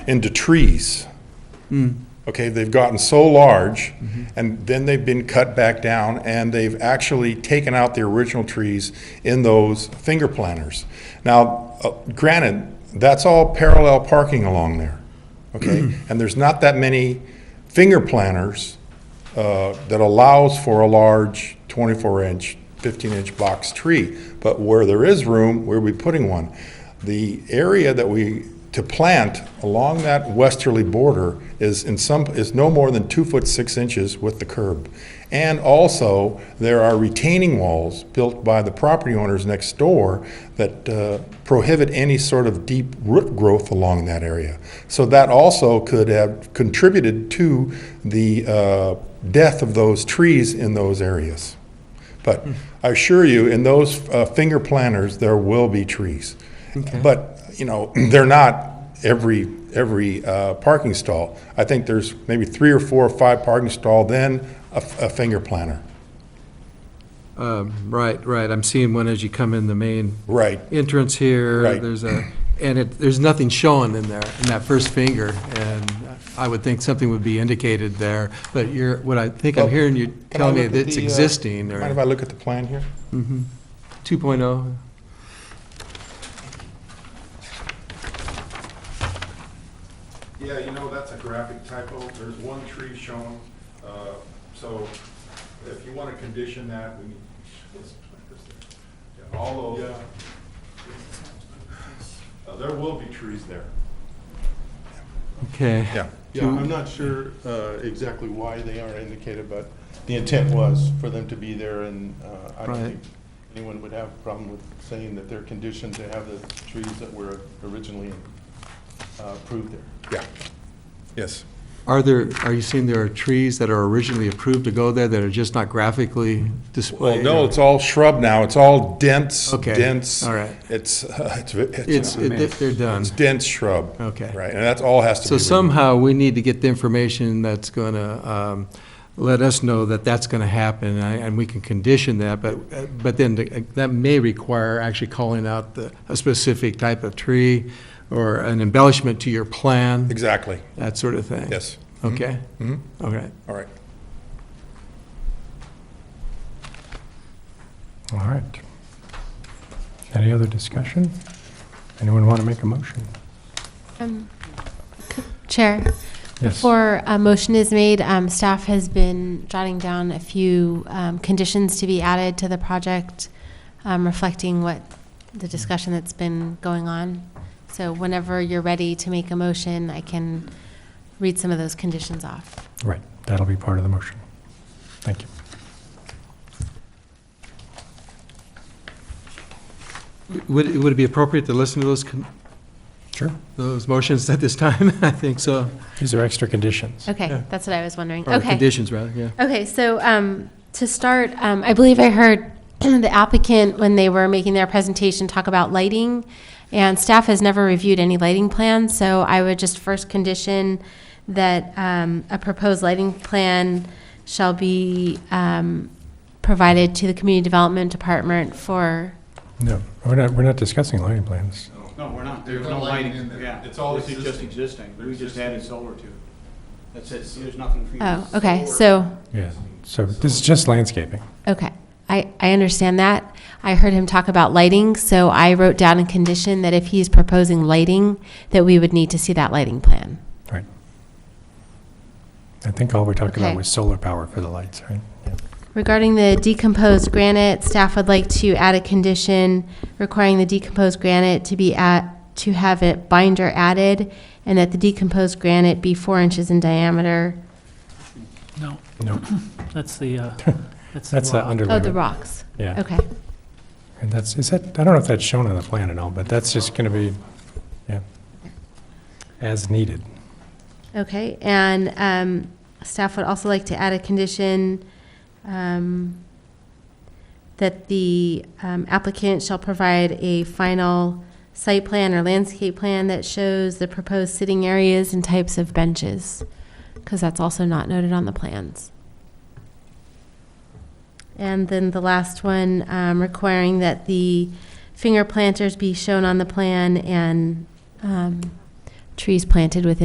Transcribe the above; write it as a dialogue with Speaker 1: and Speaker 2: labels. Speaker 1: into trees. Okay, they've gotten so large, and then they've been cut back down, and they've actually taken out the original trees in those finger planters. Now, uh, granted, that's all parallel parking along there, okay? And there's not that many finger planters uh, that allows for a large 24-inch, 15-inch box tree. But where there is room, we'll be putting one. The area that we, to plant along that westerly border is in some, is no more than two foot six inches with the curb. And also, there are retaining walls built by the property owners next door that uh, prohibit any sort of deep root growth along that area. So that also could have contributed to the uh, death of those trees in those areas. But I assure you, in those uh, finger planters, there will be trees. But, you know, they're not every, every uh, parking stall. I think there's maybe three or four or five parking stall, then a f- a finger planter.
Speaker 2: Right, right, I'm seeing one as you come in the main
Speaker 1: Right.
Speaker 2: entrance here.
Speaker 1: Right.
Speaker 2: There's a, and it, there's nothing showing in there, in that first finger, and I would think something would be indicated there, but you're, what I think I'm
Speaker 1: Well,
Speaker 2: hearing you
Speaker 1: I
Speaker 2: telling me
Speaker 1: look
Speaker 2: that
Speaker 1: at
Speaker 2: it's
Speaker 1: the, uh,
Speaker 2: existing,
Speaker 1: Mind if
Speaker 2: or oh?
Speaker 1: I look at the plan here?
Speaker 2: 2.0?
Speaker 1: Yeah, you know, that's a graphic typo. There's one tree shown, uh, so if you want to condition that, we need, let's put this there. Yeah, all those. Uh, There will be trees there.
Speaker 2: Okay.
Speaker 1: Yeah.
Speaker 3: Yeah, I'm not sure uh, exactly why they aren't indicated, but the intent was for them to be there, and uh, I
Speaker 2: Right.
Speaker 3: don't think anyone would have a problem with saying that they're conditioned to have the trees that were originally uh, approved there.
Speaker 1: Yeah. Yes.
Speaker 2: Are there, are you seeing there are trees that are originally approved to go there that are just not graphically
Speaker 1: Well,
Speaker 2: displayed?
Speaker 1: no,
Speaker 2: or-
Speaker 1: it's all shrub now. It's all dense,
Speaker 2: Okay,
Speaker 1: dense.
Speaker 2: all right.
Speaker 1: It's, it's, it's
Speaker 2: It's, it- they're done.
Speaker 1: it's dense shrub.
Speaker 2: Okay.
Speaker 1: Right, and that's all has to be.
Speaker 2: So
Speaker 1: removed.
Speaker 2: somehow, we need to get the information that's going to let us know that that's going to happen, and I- and we can condition that, but, but then the- that may require actually calling out the- a specific type of tree or an embellishment to your plan,
Speaker 1: Exactly,
Speaker 2: that sort of thing.
Speaker 1: yes.
Speaker 2: Okay?
Speaker 1: Mhm.
Speaker 2: All right.
Speaker 1: All right.
Speaker 4: All right. Any other discussion? Anyone want to make a motion?
Speaker 5: Um, Chair,
Speaker 4: Yes.
Speaker 5: before a motion is made, um, staff has been jotting down a few um, conditions to be added to the project, um, reflecting what the discussion that's been going on. So whenever you're ready to make a motion, I can read some of those conditions off.
Speaker 4: Right, that'll be part of the motion. Thank you.
Speaker 2: Would, would it be appropriate to listen to those, con-
Speaker 4: Sure.
Speaker 2: those motions at this time? I think so.
Speaker 4: These are extra conditions.
Speaker 2: Yeah.
Speaker 5: Okay, that's what I was wondering.
Speaker 2: Or
Speaker 5: Okay.
Speaker 2: conditions, rather, yeah.
Speaker 5: Okay, so um, to start, um, I believe I heard the applicant, when they were making their presentation, talk about lighting, and staff has never reviewed any lighting plans, so I would just first condition that um, a proposed lighting plan shall be um, provided to the Community Development Department for,
Speaker 4: No, we're not, we're not discussing lighting plans.
Speaker 6: No, we're not, there's
Speaker 1: There's
Speaker 6: no
Speaker 1: no lighting in
Speaker 6: lighting,
Speaker 1: there.
Speaker 6: yeah.
Speaker 1: It's all
Speaker 6: This is just existing, we just added solar to it. That's it, there's nothing for you.
Speaker 5: oh, okay, so,
Speaker 4: Yeah. So this is just landscaping.
Speaker 5: okay. I, I understand that. I heard him talk about lighting, so I wrote down a condition that if he's proposing lighting, that we would need to see that lighting plan.
Speaker 4: Right. I think all we talked about
Speaker 5: Okay.
Speaker 4: was solar power for the lights, right? Yeah.
Speaker 5: Regarding the decomposed granite, staff would like to add a condition requiring the decomposed granite to be at, to have a binder added, and that the decomposed granite be four inches in diameter.
Speaker 7: No,
Speaker 4: No,
Speaker 7: that's the, uh, that's the
Speaker 4: that's the
Speaker 7: rock.
Speaker 5: Oh, the
Speaker 4: underlayment.
Speaker 5: rocks.
Speaker 4: Yeah.
Speaker 5: Okay.
Speaker 4: And that's, is that, I don't know if that's shown on the plan at all, but that's just going to be, yeah, as needed.
Speaker 5: Okay, and um, staff would also like to add a condition um, that the um, applicant shall provide a final site plan or landscape plan that shows the proposed sitting areas and types of benches, because that's also not noted on the plans. And then the last one, um, requiring that the finger planters be shown on the plan and um, trees planted within